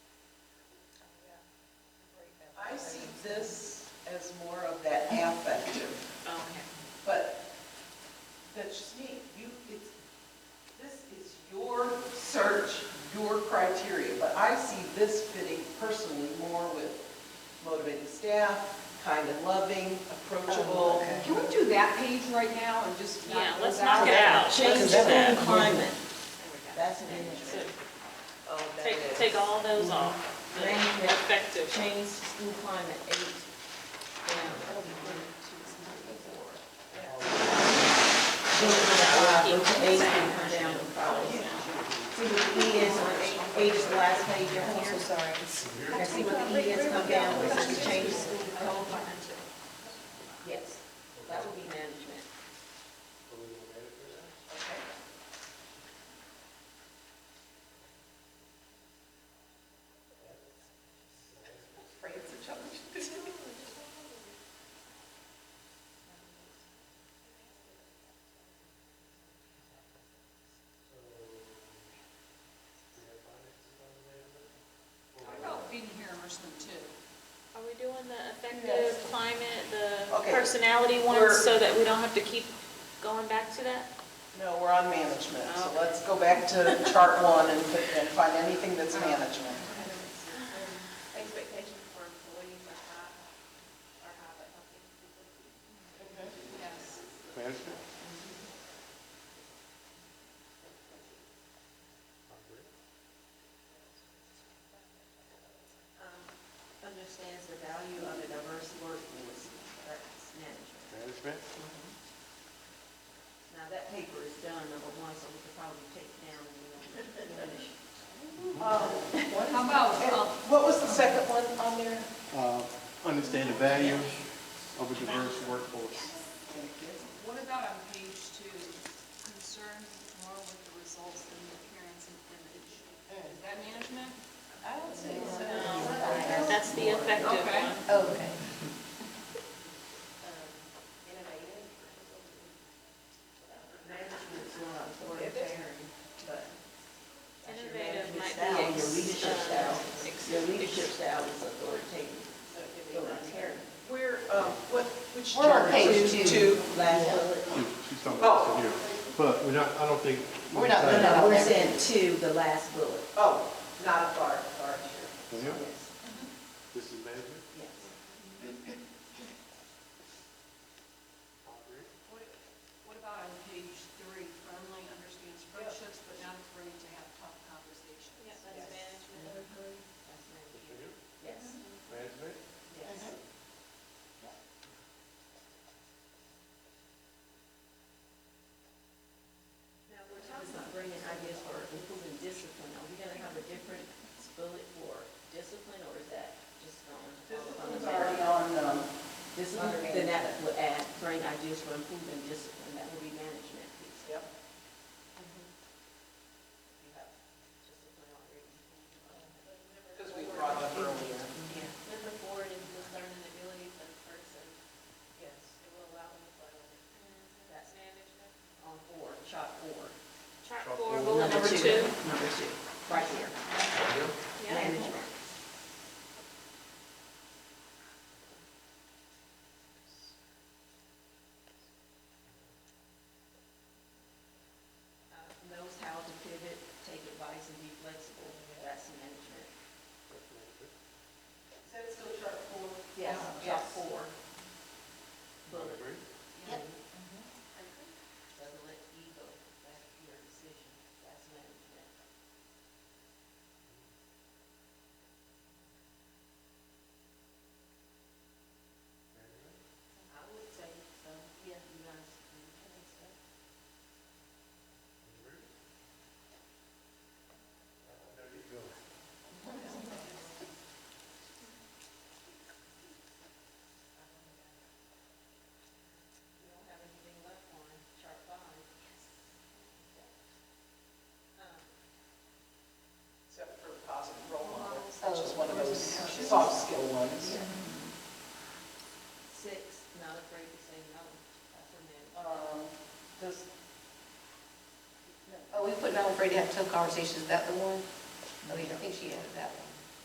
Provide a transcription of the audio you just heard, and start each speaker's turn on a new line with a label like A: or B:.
A: this as more of that affective,
B: Okay.
A: but that's just me. You, it's, this is your search, your criteria, but I see this fitting personally more with motivated staff, kind and loving, approachable.
B: okay.
C: Can we do that page right now and just knock
B: Yeah,
C: those
B: let's
C: out?
B: knock it out.
D: Change
B: Let's-
D: school climate.
A: That's management.
D: Oh, that
B: Take,
D: is.
B: take all those off, the
D: Right.
B: effective.
D: Change school climate eight down. Eight
B: Keep
D: to
B: the
D: eight
B: same
D: and come down
B: version.
D: to five. See what E is on eight- eight, is the last page down here. Sorry. Now see what the E is come down, which is change school climate. Yes, that would be management.
A: Right, it's a challenge.
C: How about being here immersement too?
B: Are we doing the effective climate, the
A: Okay.
B: personality ones,
A: We're-
B: so that we don't have to keep going back to that?
A: No, we're on management, so
B: Okay.
A: let's go back to chart one and put- and find anything that's management.
E: Expectations for employees are high, are high, but healthy.
C: Yes.
F: Management?
D: Um, Understands the value of a diverse workforce, that's management.
F: Management?
D: Now, that paper is done, number one, so we could probably take down the finish.
C: How about, um,
A: What was the second one on there?
F: Uh, Understand the value of a diverse workforce.
C: what about on page two, concerned more with the results than the appearance and image? Is that management?
A: I don't think
B: No, That's the effective
C: Okay.
B: one.
D: Okay. Innovative. Management's not authoritarian, but. that's your
B: Innovative
D: management
B: might be.
D: style, Your
B: ex-
D: leadership
B: uh,
D: style,
B: ex-
D: your leadership style is authoritative, authoritarian.
A: Where, um, what, which
D: We're on
A: chart?
D: page
A: Two,
D: two.
A: Two. Oh,
D: Last bullet.
F: She- She's talking about here, but we're not, I don't think.
A: We're not-
D: No, no, we're saying two, the last bullet.
A: Oh, not authority, authority.
F: Yeah,
D: Yes,
F: This is management?
D: yes.
C: What what about on page three, firmly understands friendships but not afraid to have tough conversations?
B: Yeah, that's management.
D: That's management.
F: Management?
D: Yes, yes. Now, we're talking about bringing ideas for improving discipline. Are we gonna have a different bullet for discipline, or is that just going to fall upon
A: Discipline's
D: the
A: already
D: management?
A: on, um,
D: Discipline, then that would add, bring ideas for improving discipline. That would be management, please.
A: yep.
D: You have discipline already.
A: Because we brought up earlier.
D: Yeah,
E: Number four is the learning abilities of a person,
D: yes.
E: it will allow them to learn.
D: That's
E: management.
D: On four, chart four.
B: Chart four, bullet number two.
D: Number two, right here,
B: Yeah.
D: management. Uh, Knows how to pivot, take advice, and be flexible, that's management.
A: Is that still chart four?
D: Yes, chart
A: Yes.
D: four. Bullet.
F: Agree?
D: Yep. Doesn't let ego, that's your decision, that's management. I would say so, yeah, you guys, you can say. We don't have anything left on chart five. Um,
A: Except for positive role models, that's just one of those soft skill ones.
D: Six, not afraid to say no, that's a man.
A: Um, Does,
G: Oh, we put not afraid to have tough conversations, is that the one? Oh, yeah, I think she added that one.